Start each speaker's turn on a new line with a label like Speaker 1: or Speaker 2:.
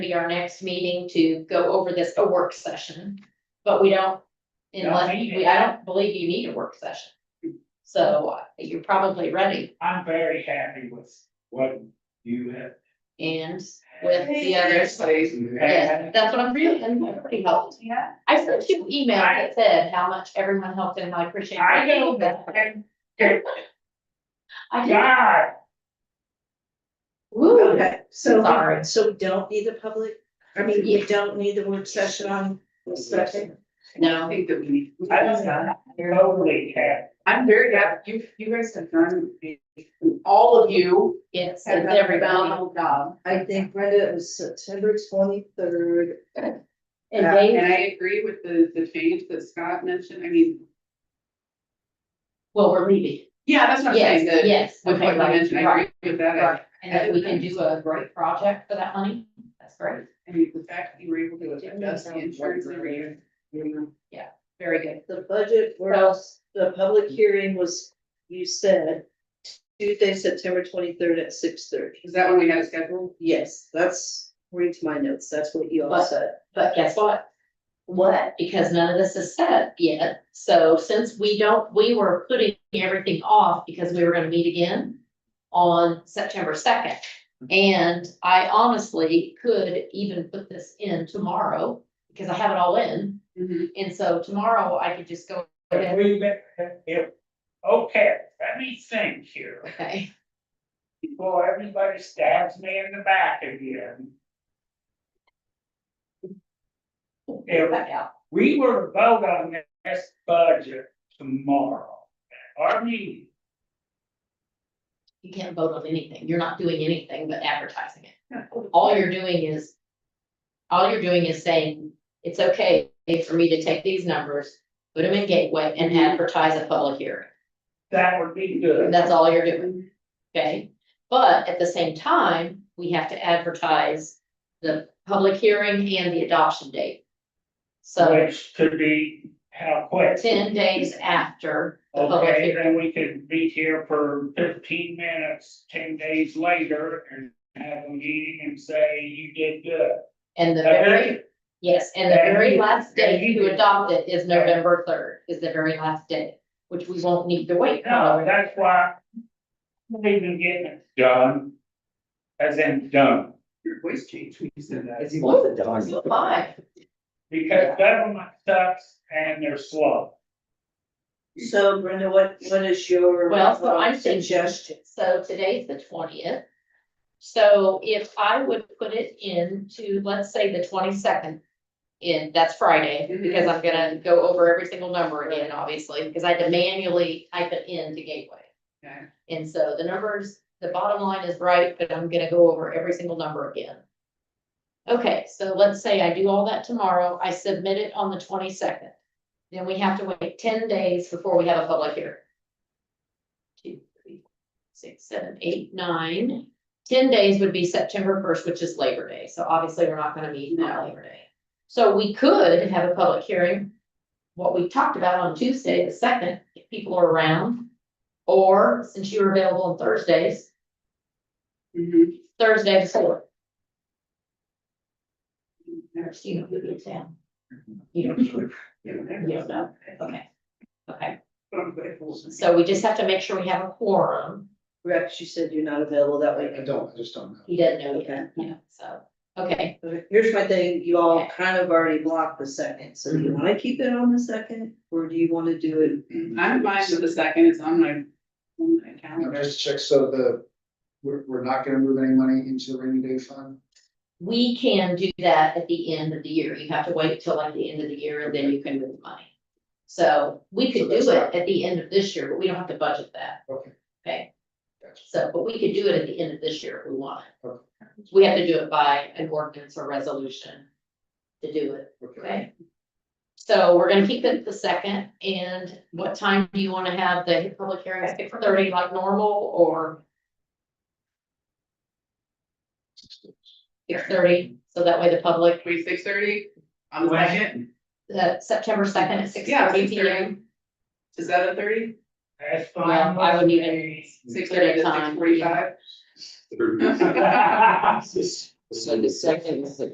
Speaker 1: be our next meeting to go over this, a work session, but we don't. Unless,
Speaker 2: Don't need
Speaker 1: we,
Speaker 2: it.
Speaker 1: I don't believe you need a work session. So uh, you're probably ready
Speaker 2: I'm very happy with what you have.
Speaker 1: and with the others. Yes,
Speaker 2: And
Speaker 1: that's what I'm really, I'm pretty helped.
Speaker 3: Yeah.
Speaker 1: I sent you an email that said how much everyone helped and I appreciate. it.
Speaker 2: I go back and get
Speaker 1: I did,
Speaker 2: God,
Speaker 1: woo,
Speaker 3: Okay, so,
Speaker 1: Sorry.
Speaker 3: so we don't need the public, I mean, we don't need the work session on the second.
Speaker 1: no.
Speaker 4: think that we need.
Speaker 2: I was totally happy.
Speaker 4: I'm very happy, you, you guys have done, all of you
Speaker 1: Yes,
Speaker 4: have
Speaker 1: and
Speaker 4: done a
Speaker 1: everybody.
Speaker 4: phenomenal job.
Speaker 3: I think Brenda, it was September twenty-third.
Speaker 1: And
Speaker 4: Uh,
Speaker 1: they,
Speaker 4: And I agree with the, the change that Scott mentioned, I mean,
Speaker 1: well, we're leaving.
Speaker 4: yeah, that's what I'm
Speaker 1: Yes,
Speaker 4: saying, that,
Speaker 1: yes.
Speaker 4: with
Speaker 1: okay,
Speaker 4: what you
Speaker 1: right,
Speaker 4: mentioned, I
Speaker 1: right,
Speaker 4: agree with that.
Speaker 1: right. And that we can do a great project for that money. That's great.
Speaker 4: I mean, the fact that you were able to adjust the insurance every year. you know.
Speaker 1: Very good.
Speaker 3: The budget, where
Speaker 1: So-
Speaker 3: else, the public hearing was, you said, Tuesday, September twenty-third at six thirty.
Speaker 4: Is that when we had a schedule?
Speaker 3: Yes, that's, read my notes, that's what you all
Speaker 1: But-
Speaker 3: said.
Speaker 1: But guess what? What? Because none of this is set up yet. So since we don't, we were putting everything off because we were gonna meet again on September second. And I honestly could even put this in tomorrow because I have it all in.
Speaker 3: Mm-hmm.
Speaker 4: Mhm.
Speaker 1: And so tomorrow I could just go ahead.
Speaker 2: We met, if, okay, let me think here,
Speaker 1: Okay,
Speaker 2: before everybody stabs me in the back again. If
Speaker 1: back out.
Speaker 2: we were to vote on this budget tomorrow, our meeting,
Speaker 1: You can't vote on anything. You're not doing anything but advertising it. All you're doing is, all you're doing is saying, it's okay for me to take these numbers, put them in Gateway and advertise a public hearing.
Speaker 2: that would be good.
Speaker 1: That's all you're doing. Okay? But at the same time, we have to advertise the public hearing and the adoption date. So
Speaker 2: Which could be how quick.
Speaker 1: uh, ten days after the public
Speaker 2: Okay,
Speaker 1: hearing.
Speaker 2: then we could be here for fifteen minutes, ten days later and have a meeting and say, you did good.
Speaker 1: And the
Speaker 2: Okay?
Speaker 1: very Yes, and the
Speaker 2: And
Speaker 1: very
Speaker 2: you-
Speaker 1: last day
Speaker 2: and you-
Speaker 1: to adopt it is November third, is the very last day, which we won't need to wait.
Speaker 2: No, that's why. I'm even getting it done. As in done,
Speaker 4: Your voice changed when you said that.
Speaker 1: Ooh, my.
Speaker 2: because government sucks and they're slow.
Speaker 3: So Brenda, what, what is your?
Speaker 1: Well, so I'm thinking-
Speaker 3: Suggestion.
Speaker 1: So today's the twentieth. So if I would put it into, let's say, the twenty-second, in, that's Friday, because I'm gonna go over every single number again, obviously, because I had to manually type it in to Gateway.
Speaker 4: Okay.
Speaker 1: And so the numbers, the bottom line is right, but I'm gonna go over every single number again. Okay, so let's say I do all that tomorrow, I submit it on the twenty-second. Then we have to wait ten days before we have a public hearing. Two, three, six, seven, eight, nine. Ten days would be September first, which is Labor Day, so obviously we're not gonna meet on Labor Day. So we could have a public hearing, what we talked about on Tuesday, the second, if people are around. Or since you were available on Thursdays,
Speaker 3: Mm-hmm.
Speaker 4: Mhm.
Speaker 1: Thursday the fourth. You know, you'll be in town. You don't, you don't know, okay, okay, so we just have to make sure we have a quorum,
Speaker 3: Rex, you said you're not available that week.
Speaker 5: I don't, I just don't know.
Speaker 1: he doesn't know yet, yeah, so, okay.
Speaker 3: Here's my thing, you all kind of already blocked the second, so do
Speaker 4: Mm-hmm.
Speaker 3: you wanna keep it on the second, or do you wanna do it?
Speaker 4: I'm fine with the second, it's on my, on my
Speaker 5: Now,
Speaker 4: calendar.
Speaker 5: Just check, so the, we're, we're not gonna move any money into the rainy day fund?
Speaker 1: We can do that at the end of the year, you have to wait till like the end of the year and then you can move money. So we could
Speaker 5: So
Speaker 1: do
Speaker 5: that's
Speaker 1: it
Speaker 5: not-
Speaker 1: at the end of this year, but we don't have to budget that,
Speaker 5: Okay.
Speaker 1: okay?
Speaker 5: Gotcha.
Speaker 1: So, but we could do it at the end of this year if we want.
Speaker 5: Okay.
Speaker 1: We have to do it by an ordinance or resolution to do it, okay? So we're gonna keep it the second, and what time do you wanna have the public hearing, six thirty like normal, or six thirty? So that way the public,
Speaker 4: Wait, six thirty on the
Speaker 2: When?
Speaker 4: second,
Speaker 1: uh, September second at six
Speaker 4: Yeah,
Speaker 1: thirty
Speaker 4: 6:30.
Speaker 1: P M.
Speaker 4: to seven thirty,
Speaker 2: That's fine.
Speaker 1: Well, I wouldn't
Speaker 2: with
Speaker 1: even-
Speaker 2: me.
Speaker 4: six thirty to
Speaker 1: Good time,
Speaker 4: six forty-five?
Speaker 2: Yes.
Speaker 6: So the second is the